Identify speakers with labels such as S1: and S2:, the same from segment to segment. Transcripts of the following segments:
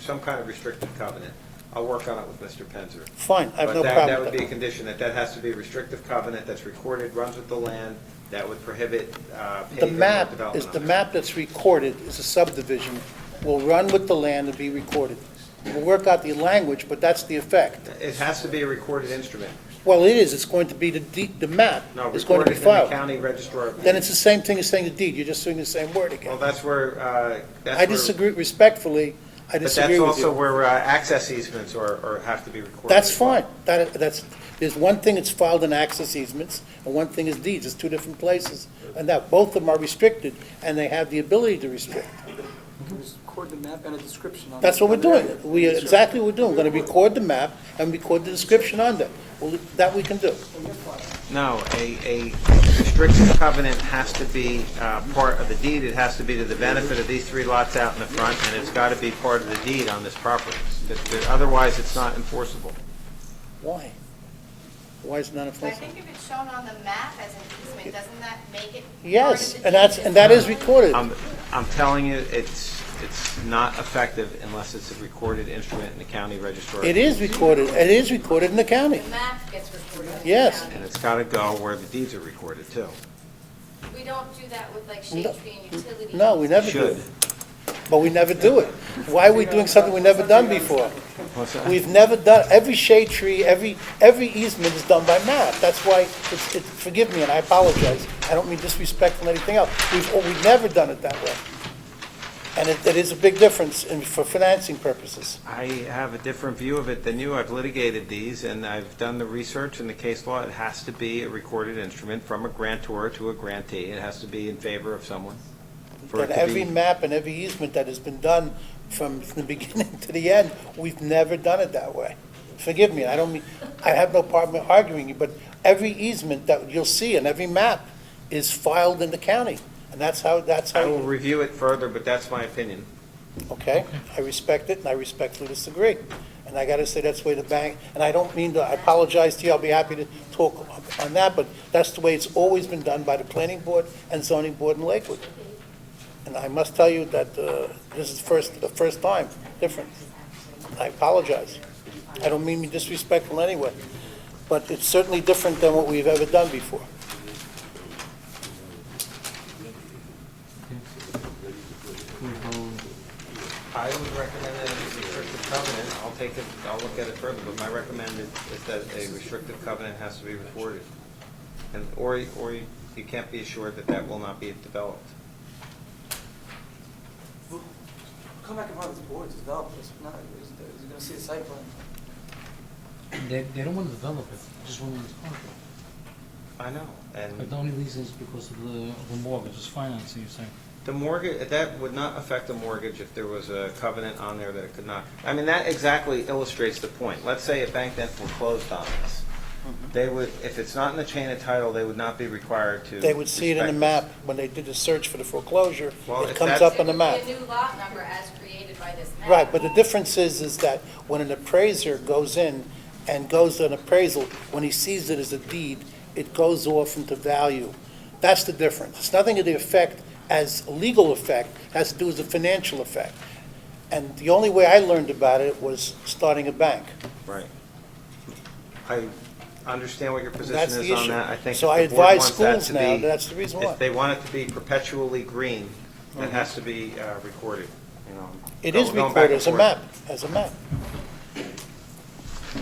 S1: some kind of restrictive covenant. I'll work on it with Mr. Penzer.
S2: Fine, I have
S1: But that-
S2: no
S1: That
S2: problem
S1: would
S2: with
S1: be a
S2: that.
S1: condition, that that has to be a restrictive covenant that's recorded, runs with the land, that would prohibit uh,
S2: The
S1: paving or
S2: map
S1: development
S2: is,
S1: on
S2: the
S1: it.
S2: map that's recorded is a subdivision, will run with the land and be recorded. We'll work out the language, but that's the effect.
S1: It has to be a recorded instrument.
S2: Well, it is, it's going to be the deed, the map
S1: No,
S2: is going
S1: recorded
S2: to be
S1: in the
S2: filed.
S1: county registrar. of
S2: Then
S1: deeds.
S2: it's the same thing as saying the deed, you're just doing the same word
S1: Well,
S2: again.
S1: that's where, uh, that's
S2: I
S1: where.
S2: disagree, respectfully, I
S1: But
S2: disagree
S1: that's
S2: with
S1: also
S2: you.
S1: where uh, access easements are, are, have to be recorded.
S2: That's
S1: as well.
S2: fine, that, that's, there's one thing that's filed in access easements, and one thing is deeds, it's two different places. And that, both of them are restricted, and they have the ability to restrict.
S3: Can we record the map and a description on it?
S2: That's what we're doing. We, exactly what we're doing. We're gonna record the map and record the description on them. Well, that we can do.
S1: No, a, a restrictive covenant has to be uh, part of the deed. It has to be to the benefit of these three lots out in the front, and it's got to be part of the deed on this property. That- that- Otherwise, it's not enforceable.
S2: Why? Why is it not
S4: But I
S2: enforceable?
S4: think if it's shown on the map as an easement, doesn't that make it?
S2: Yes,
S4: part of the
S2: and that's,
S4: deed?
S2: and that is recorded.
S1: I'm, I'm telling you, it's, it's not effective unless it's a recorded instrument in the county registrar.
S2: It is recorded. It is recorded in the county.
S4: The map gets recorded. in the
S2: Yes.
S4: county.
S1: And it's got to go where the deeds are recorded, too.
S4: We don't do that with like shade
S2: No.
S4: tree and utilities.
S2: No, we never do.
S1: Should.
S2: it. But we never do it. Why are we doing something we've never done before?
S1: What's that?
S2: We've never done, every shade tree, every, every easement is done by map. That's why, it's, it, forgive me and I apologize. I don't mean disrespectful or anything else. We've, oh, we've never done it that way. And it, it is a big difference in, for financing purposes.
S1: I have a different view of it than you. I've litigated these, and I've done the research and the case law. It has to be a recorded instrument from a grantor to a grantee. It has to be in favor of someone. for it
S2: But
S1: to
S2: every
S1: be-
S2: map and every easement that has been done from, from the beginning to the end, we've never done it that way. Forgive me, I don't mean, I have no problem arguing you, but every easement that you'll see in every map is filed in the county. And that's how, that's how.
S1: I will review it further, but that's my opinion.
S2: Okay, I respect it, and I respectfully disagree. And I gotta say, that's the way the bank, and I don't mean to, I apologize to you, I'll be happy to talk on that, but that's the way it's always been done by the planning board and zoning board in Lakewood. And I must tell you that, uh, this is first, the first time, different. I apologize. I don't mean to be disrespectful in any way, but it's certainly different than what we've ever done before.
S1: I would recommend that it's a restrictive covenant. I'll take it, I'll look at it further, but my recommend is is that a restrictive covenant has to be recorded. And, or, or you you can't be assured that that will not be developed.
S3: Come back in front of this board, it's developed, it's not, it's- you're gonna see a site plan.
S5: They, they don't want to develop it, they just want to own it.
S1: I know, and.
S5: But the only reason is because of the, of the mortgage, is financing, you're saying.
S1: The mortgage, that would not affect the mortgage if there was a covenant on there that it could not. I mean, that exactly illustrates the point. Let's say a bank then foreclosed on this.
S2: Mm-hmm.
S1: They would, if it's not in the chain of title, they would not be required to.
S2: They would see it in the
S1: respect
S2: map, when they did the search for the foreclosure,
S1: Well,
S2: it
S1: if
S2: comes
S1: that's-
S2: up on the map.
S4: It would be a new lot number as created by this map.
S2: Right, but the difference is, is that when an appraiser goes in and goes to an appraisal, when he sees it as a deed, it goes off into value. That's the difference. It's nothing to the effect as legal effect, has to do with the financial effect. And the only way I learned about it was starting a bank.
S1: Right. I understand what your position
S2: That's the
S1: is on
S2: issue.
S1: that. I think
S2: So I
S1: if the board
S2: advise
S1: wants that
S2: schools
S1: to
S2: now,
S1: be-
S2: that's the reason why.
S1: If they want it to be perpetually green, that has to be uh, recorded, you know.
S2: Mm-hmm. It
S1: Go-
S2: is
S1: going back
S2: recorded
S1: and
S2: as a
S1: forth.
S2: map, as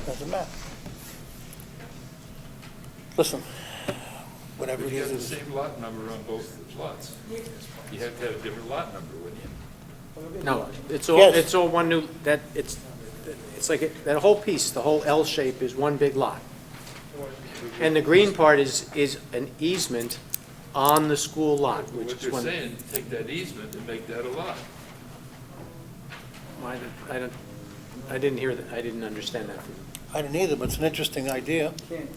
S2: a map. As a map. Listen, whatever
S6: But
S2: it
S6: you have the
S2: is,
S6: same lot number on both lots. You have to have a different lot number, wouldn't you?
S7: No, it's all,
S2: Yes.
S7: it's all one new, that, it's, it's like, it- that whole piece, the whole L shape is one big lot. And the green part is, is an easement on the school lot,
S6: What
S7: which is
S6: they're
S7: one.
S6: saying, take that easement and make that a lot.
S7: I didn't- I don't, I didn't hear that, I didn't understand that from you.
S2: I didn't either, but it's an interesting idea.
S3: Can't,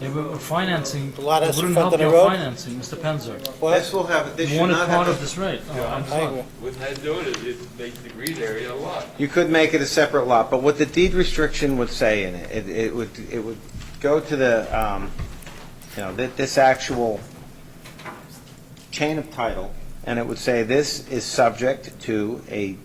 S5: They were financing, it
S2: A lot has
S5: wouldn't
S2: front
S5: help
S2: on the
S5: your
S2: road.
S5: financing, Mr. Penzer.
S2: Well,
S1: This will have, this
S5: You
S1: should
S5: want it
S1: not
S5: part
S1: have
S5: of this rate. Oh, I'm
S2: I
S5: sorry.
S2: agree.
S6: What they're doing is it makes the green area a lot.
S1: You could make it a separate lot, but what the deed restriction would say in it, it, it would, it would go to the, um, you know, thi- this actual chain of title, and it would say this is subject to a